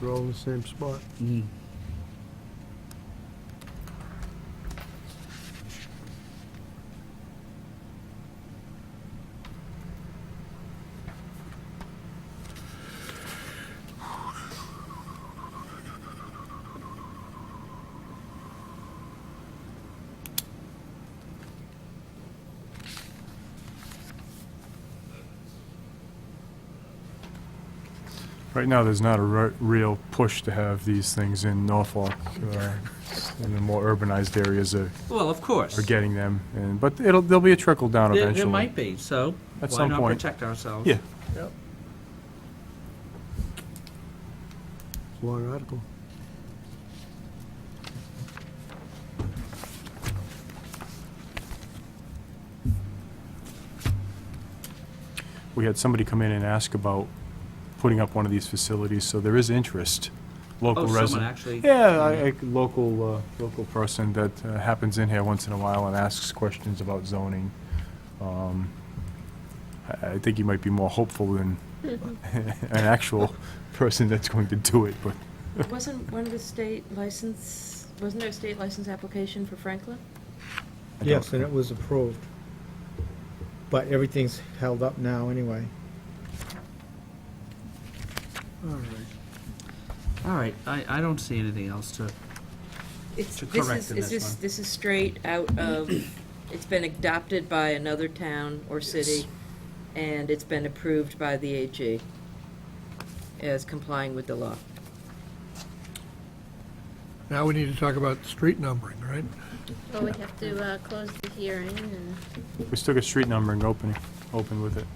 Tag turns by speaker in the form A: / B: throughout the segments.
A: They're all in the same spot.
B: Right now, there's not a re- real push to have these things in Norfolk. uh, And the more urbanized areas are
C: Well, of course.
B: are getting them, and, but it'll, there'll be a trickle down
C: There-
B: eventually.
C: There might be, so
B: At
C: why
B: some
C: not
B: point.
C: protect ourselves?
B: Yeah.
A: It's a long article.
B: We had somebody come in and ask about putting up one of these facilities, so there is interest, local
C: Oh, someone
B: resident.
C: actually,
B: Yeah, I, I, local, uh, local person that uh, happens in here once in a while and asks questions about zoning. Um, I, I think you might be more hopeful than an actual person that's going to do it, but
D: Wasn't one of the state license, wasn't there a state license application for Franklin?
B: I don't-
E: Yes, and it was approved. But everything's held up now anyway.
A: All right.
C: all right, I, I don't see anything else to,
D: It's,
C: To
D: this
C: correct
D: is,
C: in this
D: is this,
C: one.
D: this is straight out of, it's been adopted by another town or city, and it's been approved by the AG as complying with the law.
A: Now we need to talk about street numbering, right?
F: Well, we have to uh, close the hearing, and
B: We still got street numbering opening, open with it,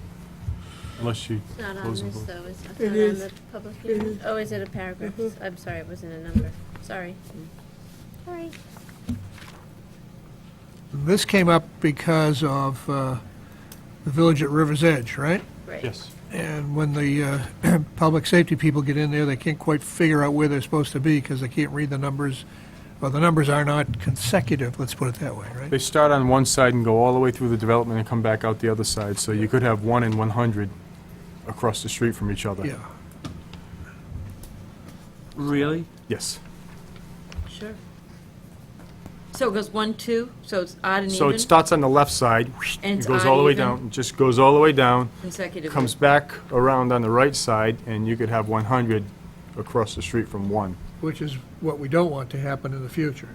B: unless you
F: it's not on
B: close
F: this,
B: them both.
F: though, is it? It's
D: It Mm-hmm.
F: not on
D: is.
F: the public hearing? Oh, is it a paragraph? I'm sorry, it wasn't a number. Sorry. Sorry.
G: This came up because of uh, the village at River's Edge, right?
F: Right.
B: Yes.
G: And when the uh, public safety people get in there, they can't quite figure out where they're supposed to be because they can't read the numbers, or the numbers are not consecutive, let's put it that way, right?
B: They start on one side and go all the way through the development and come back out the other side, so you could have one and 100 across the street from each other.
G: Yeah.
C: really?
B: Yes.
D: Sure. So it goes one, two, so it's odd and
B: So it
D: even
B: starts on the left side,
D: And
B: and
D: it's
B: goes all the way
D: uneven.
B: down, just goes all the way down,
D: consecutively.
B: comes back around on the right side, and you could have 100 across the street from one.
G: Which is what we don't want to happen in the future.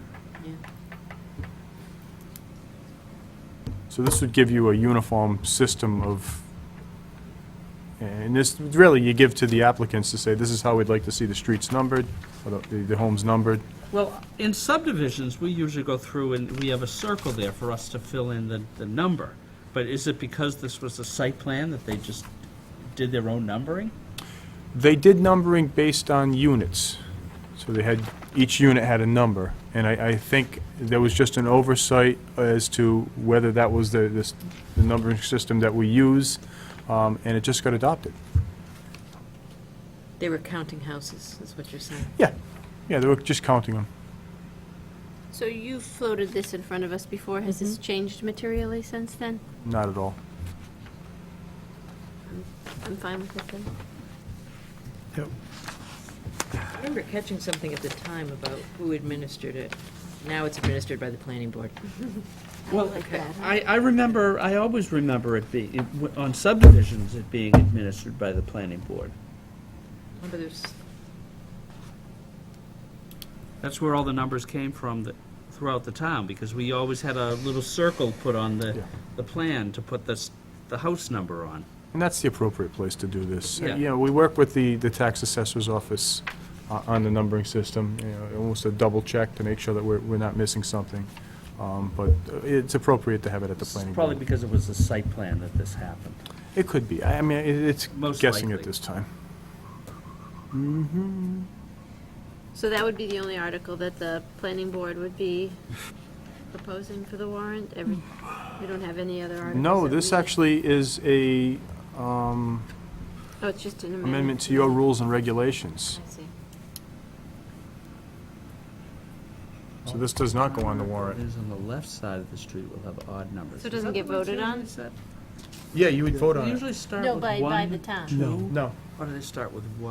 B: So this would give you a uniform system of, and this, really, you give to the applicants to say, this is how we'd like to see the streets numbered, or the, the homes numbered.
C: Well, in subdivisions, we usually go through and we have a circle there for us to fill in the, the number. But is it because this was a site plan that they just did their own numbering?
B: They did numbering based on units. So they had, each unit had a number. And I, I think there was just an oversight as to whether that was the, this, the numbering system that we use, um, and it just got adopted.
D: They were counting houses, is what you're saying.
B: Yeah, yeah, they were just counting them.
F: So you floated this in front of us before. Has this changed materially since then?
B: Not at all.
F: I'm fine with it then.
G: Yep.
D: I remember catching something at the time about who administered it. Now it's administered by the planning board.
C: Well,
F: like that.
C: I, I remember, I always remember it being, it w- on subdivisions, it being administered by the planning board.
D: Remember there's,
C: That's where all the numbers came from that, throughout the town, because we always had a little circle put on the,
B: Yeah.
C: the plan to put this, the house number on.
B: And that's the appropriate place to do this.
C: Yeah.
B: You know, we work with the, the tax assessor's office uh, on the numbering system, you know, almost a double check to make sure that we're, we're not missing something. Um, But uh, it's appropriate to have it at the
C: It's
B: planning
C: Probably
B: board.
C: because it was a site plan that this happened.
B: It could be. I I mean, it- it's
C: Most
B: guessing at
C: likely.
B: this time.
F: So that would be the only article that the planning board would be proposing for the warrant? Every, we don't have any other articles?
B: No,
F: that
B: this
F: we-
B: actually is a um,
F: Oh, it's just an amendment.
B: amendment to your rules and regulations.
F: I see.
B: So this does not go on the warrant.
C: It is on the left side of the street, we'll have odd numbers.
F: So it doesn't get voted on?
B: Yeah, you would vote
C: They usually start
F: No,
C: with
F: by- by the
C: one,
F: town.
C: two,
B: No.
C: or do they start with one?